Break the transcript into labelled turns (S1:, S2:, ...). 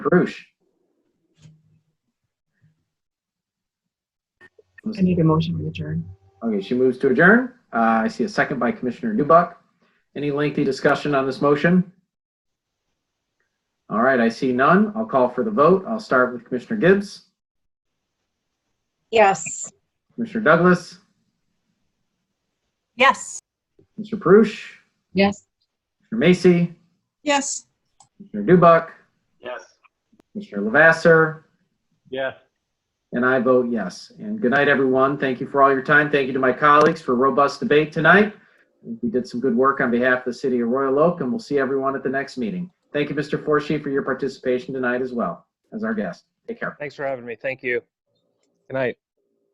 S1: Karush.
S2: I need a motion to adjourn.
S1: Okay, she moves to adjourn. Uh, I see a second by Commissioner Newbuck. Any lengthy discussion on this motion? All right, I see none. I'll call for the vote. I'll start with Commissioner Gibbs,
S3: Yes.
S1: Commissioner Douglas,
S3: Yes.
S1: Mr. Perush,
S2: Yes.
S1: Mr. Macy,
S3: Yes.
S1: Mr. Newbuck,
S4: Yes.
S1: Mr. Lavasser,
S4: Yes.
S1: and I vote yes. And good night, everyone. Thank you for all your time. Thank you to my colleagues for robust debate tonight. I think We did some good work on behalf of the city of Royal Oak, and we'll see everyone at the next meeting. Thank you, Mr. Forshee, for your participation tonight as well as our guest. Take care.
S5: Thanks for having me. Thank you. Good night.